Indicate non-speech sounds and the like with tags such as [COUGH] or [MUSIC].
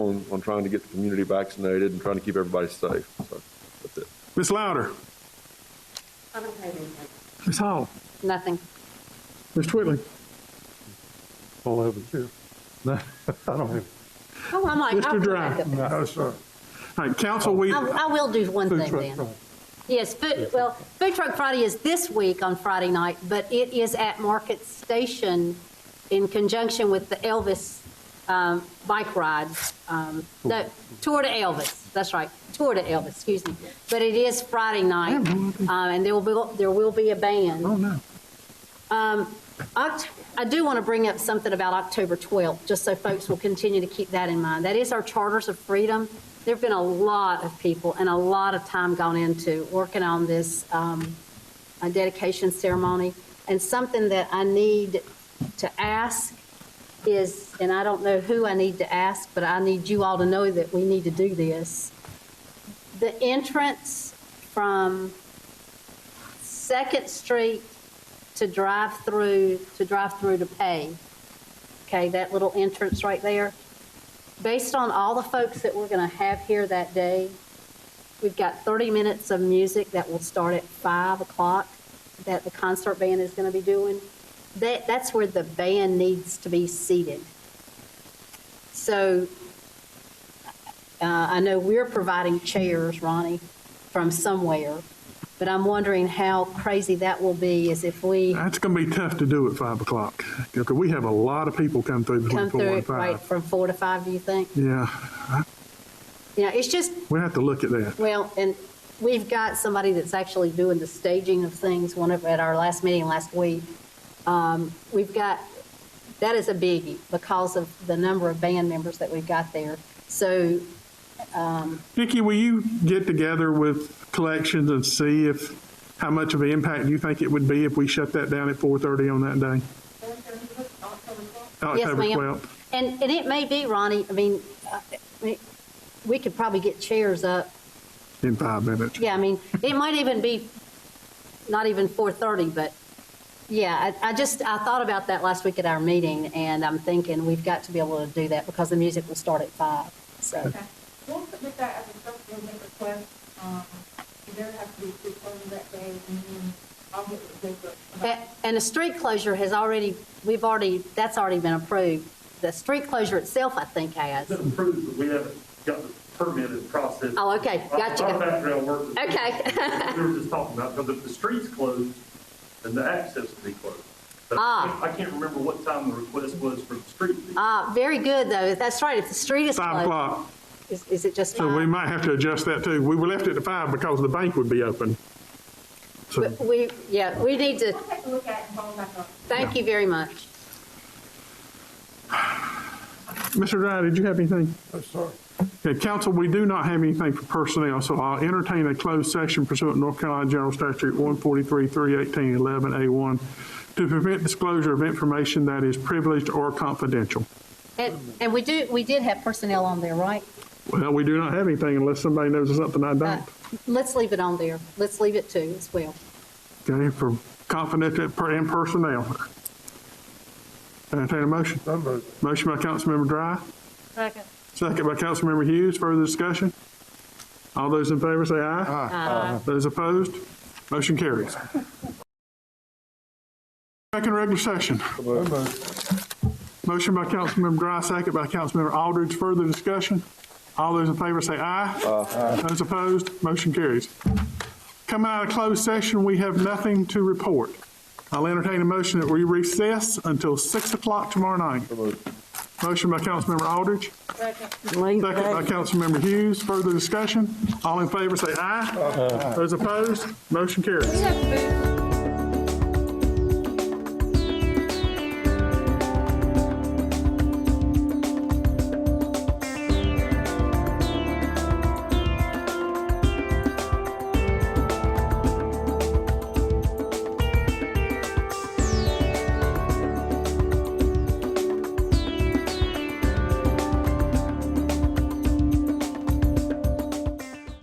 on, on trying to get the community vaccinated and trying to keep everybody safe. So that's it. Ms. Louder, I haven't heard anything. Ms. Hall, Nothing. Ms. Twittley. all over [LAUGHS] you. No, I don't have, Oh, I'm like. Mr. I'll- Dry. no, sir. All right, council, we, I, I will do one Food thing truck then. Friday. Yes, food, well, Food Truck Friday is this week on Friday night, but it is at Market Station in conjunction with the Elvis um, bike ride. um, No, Tour to Elvis, that's right, Tour to Elvis, excuse me. But it is Friday night, uh, and there will be, there will be a band. oh, no. Oct- I do want to bring up something about October 12th, just so folks will continue to keep that in mind. That is our Charters of Freedom. There've been a lot of people and a lot of time gone into working on this um, uh, dedication ceremony. And something that I need to ask is, and I don't know who I need to ask, but I need you all to know that we need to do this. The entrance from Second Street to drive through, to drive through to pay. Okay, that little entrance right there. Based on all the folks that we're going to have here that day, we've got 30 minutes of music that will start at 5 o'clock that the concert band is going to be doing. That, that's where the band needs to be seated. So uh, I know we're providing chairs, Ronnie, from somewhere, but I'm wondering how crazy that will be is if we. That's going to be tough to do at 5 o'clock. Because we have a lot of people come through between come 4 through and it 5. right from four to five, do you think? Yeah, You know, it's just, we have to look at that. well, and we've got somebody that's actually doing the staging of things, one of, at our last meeting last week. Um, We've got, that is a biggie because of the number of band members that we've got there. So Nikki, will you get together with collections and see if, how much of an impact you think it would be if we shut that down at 4:30 on that day? Yes, October ma'am. 12th. And, and it may be, Ronnie, I mean, uh, I mean, we could probably get chairs up. In five minutes. Yeah, I mean, it might even be, not even 4:30, but, yeah, I, I just, I thought about that last week at our meeting, and I'm thinking, we've got to be able to do that because the music will start at five. so. Okay. We'll submit that as a supplemental request. Um, If there has to be three closures that day, and then I'll get with Jacob. A- And the street closure has already, we've already, that's already been approved. The street closure itself, I think, has. It's approved, but we haven't got the permitted process. Oh, okay, gotcha. Our background work. is- Okay. [LAUGHS] We were just talking about, because if the street's closed, then the access will be closed. But I Ah. can't- I can't remember what time the request was for the street. Ah, very good, though, that's right, if the street is 5 closed, o'clock. is, is it just So we five? might have to adjust that too. We were left it at 5 because the bank would be open. So, But We, yeah, we need to, We'll take a look at it and follow back up. thank you very much. Mr. Dry, did you have anything? No, sir. Okay, council, we do not have anything for personnel, so I'll entertain a closed session pursuant to North Carolina General Statute 143, 318, 11A1 to prevent disclosure of information that is privileged or confidential. And, and we do, we did have personnel on there, right? Well, we do not have anything unless somebody knows something I Uh, don't. Let's leave it on there. Let's leave it too as well. Okay, for confidential per- and personnel. Entertain a motion. No move. Motion by Councilmember Dry. Second. Second by Councilmember Hughes. Further discussion? All those in favor say aye. Aye. Those opposed? Motion carries. Second regular session. No move. Motion by Councilmember Dry, second by Councilmember Aldridge. Further discussion? All those in favor say aye. Aye. Those opposed? Motion carries. Coming out of closed session, we have nothing to report. I'll entertain a motion that we recess until 6 o'clock tomorrow night. Motion by Councilmember Aldridge. Second [LAUGHS] by Councilmember Hughes. Further discussion? All in favor say aye. Those opposed? Motion carries. We have food.